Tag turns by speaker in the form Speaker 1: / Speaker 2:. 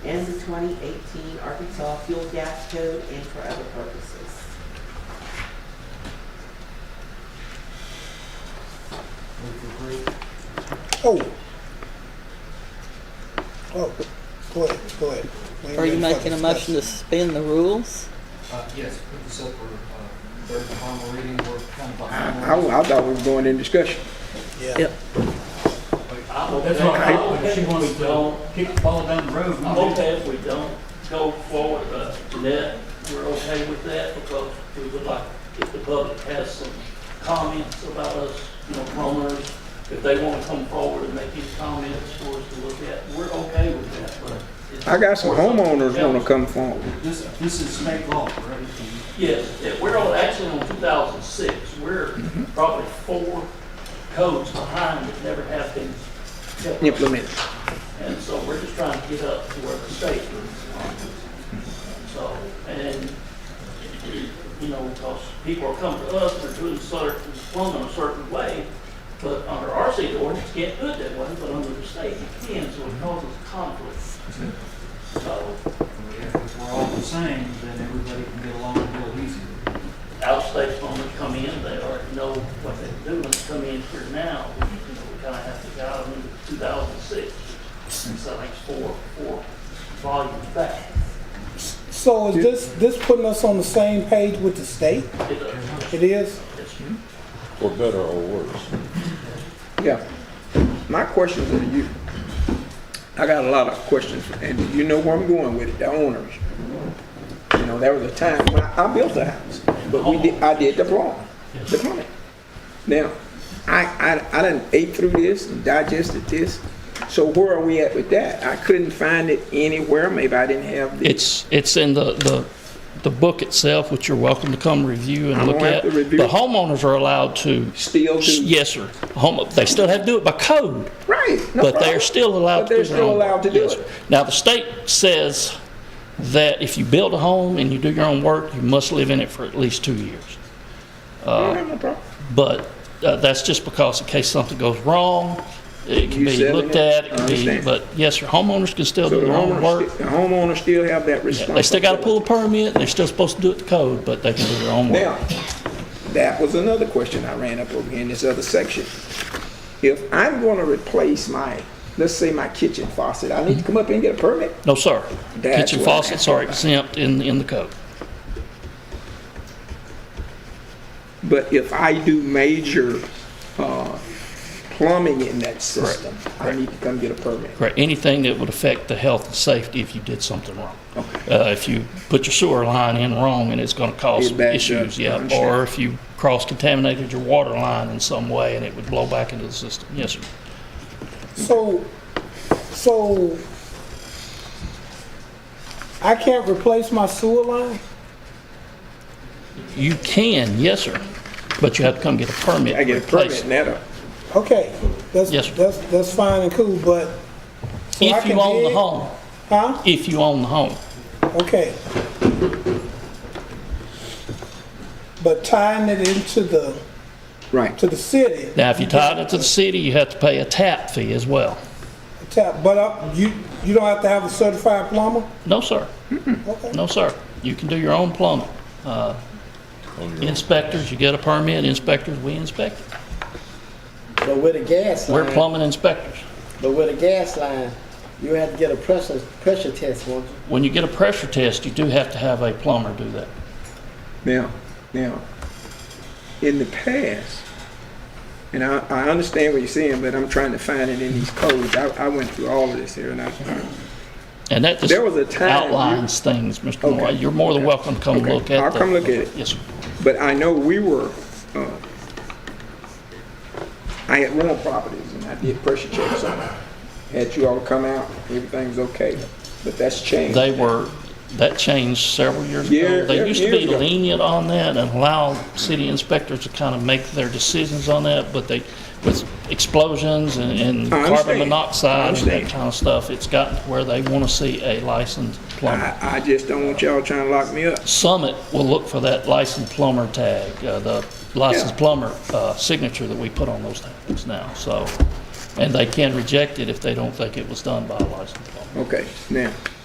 Speaker 1: and the 2018 Arkansas Fuel Gas Code and for other purposes.
Speaker 2: Oh. Oh, go ahead, go ahead. Wait
Speaker 3: Are you
Speaker 2: minute,
Speaker 3: making a
Speaker 2: fucking
Speaker 3: motion to
Speaker 2: stuff.
Speaker 3: suspend the rules?
Speaker 4: Uh, yes, put this up for, uh, third and final reading, we're kind of.
Speaker 5: I, I thought we were going in discussion.
Speaker 2: Yeah,
Speaker 3: Yep.
Speaker 6: That's what I
Speaker 4: I
Speaker 6: hope,
Speaker 4: hope she wants
Speaker 6: we don't,
Speaker 4: to kick the ball down the road.
Speaker 6: I hope that if we don't go forward, uh, that we're okay with that, because we would like, if the public has some comments about us, you know, rumors, if they wanna come forward and make these comments for us to look at, we're okay with that, but. it's-
Speaker 5: I got some homeowners wanna come forward.
Speaker 4: This, this is state law, right?
Speaker 6: Yes, yeah, we're on, actually on two thousand six, we're
Speaker 5: Mm-hmm.
Speaker 6: probably four codes behind that never have been kept.
Speaker 5: Implement.
Speaker 6: And so we're just trying to get up to where the state is. on this. So, and, you know, because people are coming to us, they're doing certain, plumbing a certain way, but under our city ordinance, you can't do it that way, but under the state, you can, so it causes conflict. So,
Speaker 4: If we're all the same, then everybody can get along real easy.
Speaker 6: outstate plumbers come in, they already know what they're doing, come in here now, we, you know, we kind of have to guide them into two thousand six. And so that's four, four volumes back.
Speaker 2: so is this, this putting us on the same page with the state?
Speaker 6: It, uh,
Speaker 2: It is?
Speaker 6: it's-
Speaker 7: for better or worse.
Speaker 5: Yeah. My questions are to you. I got a lot of questions, and you know where I'm going with it, the owners. You know, there was a time when I, I built a house, but we did, I did the wrong, the plumbing. Now, I, I, I done ate through this and digested this, so where are we at with that? I couldn't find it anywhere, maybe I didn't have the.
Speaker 8: It's, it's in the, the, the book itself, which you're welcome to come review and
Speaker 5: I'm
Speaker 8: look
Speaker 5: gonna have
Speaker 8: at.
Speaker 5: to review
Speaker 8: The
Speaker 5: it.
Speaker 8: homeowners are allowed to,
Speaker 5: Still do.
Speaker 8: yes, sir, home, they still have to do it by code,
Speaker 5: Right. no
Speaker 8: but they're
Speaker 5: problem.
Speaker 8: still allowed
Speaker 5: But
Speaker 8: to do
Speaker 5: they're
Speaker 8: their
Speaker 5: still
Speaker 8: own-
Speaker 5: allowed to do
Speaker 8: yes,
Speaker 5: it.
Speaker 8: sir. Now, the state says that if you build a home and you do your own work, you must live in it for at least two years.
Speaker 5: I have no problem.
Speaker 8: But uh, that's just because in case something goes wrong, it can
Speaker 5: You
Speaker 8: be
Speaker 5: selling
Speaker 8: looked
Speaker 5: it?
Speaker 8: at, it
Speaker 5: I
Speaker 8: can be,
Speaker 5: understand.
Speaker 8: but yes, sir, homeowners can still
Speaker 5: So
Speaker 8: do
Speaker 5: the
Speaker 8: their own work.
Speaker 5: homeowners, sti- the homeowners still have that
Speaker 8: Yeah,
Speaker 5: responsibility.
Speaker 8: They still got to pull a permit, they're still supposed to do it the code, but they can do their own work.
Speaker 5: Now, that was another question I ran up over here in this other section. If I'm gonna replace my, let's say my kitchen faucet, I need to come up here and get a permit?
Speaker 8: No, sir.
Speaker 5: That's
Speaker 8: Kitchen
Speaker 5: what I'm
Speaker 8: faucets are exempt in, in the code.
Speaker 5: But if I do major, uh, plumbing in that system, I need to come get a permit.
Speaker 8: Correct. Anything that would affect the health and safety if you did something wrong. Uh, if you put your sewer line in wrong and it's gonna cause
Speaker 5: It backs up.
Speaker 8: issues,
Speaker 5: I
Speaker 8: yeah.
Speaker 5: understand.
Speaker 8: Or if you cross-contaminated your water line in some way and it would blow back into the system. Yes, sir.
Speaker 2: So, so I can't replace my sewer line?
Speaker 8: You can, yes, sir, but you have to come get a permit.
Speaker 5: I get a
Speaker 8: to replace
Speaker 5: permit,
Speaker 8: it.
Speaker 5: and uh, that'll,
Speaker 2: Okay, that's,
Speaker 8: Yes, sir.
Speaker 2: that's, that's fine and cool, but. so I
Speaker 8: If
Speaker 2: can
Speaker 8: you own the
Speaker 2: dig-
Speaker 8: home,
Speaker 2: Huh?
Speaker 8: if you own the home.
Speaker 2: Okay. But tying it into the,
Speaker 5: right.
Speaker 2: to the city,
Speaker 8: Now, if you tied it to the city, you have to pay a tap fee as well.
Speaker 2: tap, but uh, you, you don't have to have a certified plumber?
Speaker 8: No, sir.
Speaker 2: Okay.
Speaker 8: No, sir. You can do your own plumbing. Uh, Inspectors, you get a permit, inspectors, we inspect. it.
Speaker 9: But with a gas
Speaker 8: We're
Speaker 9: line,
Speaker 8: plumbing inspectors.
Speaker 9: but with a gas line, you have to get a pressure, pressure test, won't you?
Speaker 8: When you get a pressure test, you do have to have a plumber do that.
Speaker 5: Now, now, in the past, and I, I understand what you're saying, but I'm trying to find it in these codes. I, I went through all of this here, and I,
Speaker 8: And that just
Speaker 5: There was a time you-
Speaker 8: outlines things, Mr. Moore.
Speaker 5: Okay.
Speaker 8: You're more than welcome to come
Speaker 5: Okay.
Speaker 8: look at
Speaker 5: I'll
Speaker 8: the-
Speaker 5: come look at it.
Speaker 8: Yes, sir.
Speaker 5: But I know we were, uh, I had rental properties and I did pressure checks on them. Had you all come out, everything's okay, but that's changed.
Speaker 8: They were, that changed several years
Speaker 5: Yeah,
Speaker 8: ago. They
Speaker 5: yeah,
Speaker 8: used to be
Speaker 5: years ago.
Speaker 8: lenient on that and allow city inspectors to kind of make their decisions on that, but they, with explosions and- and
Speaker 5: I
Speaker 8: carbon
Speaker 5: understand. I
Speaker 8: monoxide and
Speaker 5: understand.
Speaker 8: that kind of stuff, it's gotten to where they want to see a licensed plumber.
Speaker 5: I, I just don't want y'all trying to lock me up.
Speaker 8: Summit will look for that licensed plumber tag, uh, the licensed
Speaker 5: Yeah.
Speaker 8: plumber uh, signature that we put on those things now, so. And they can reject it if they don't think it was done by a licensed plumber.
Speaker 5: Okay, now,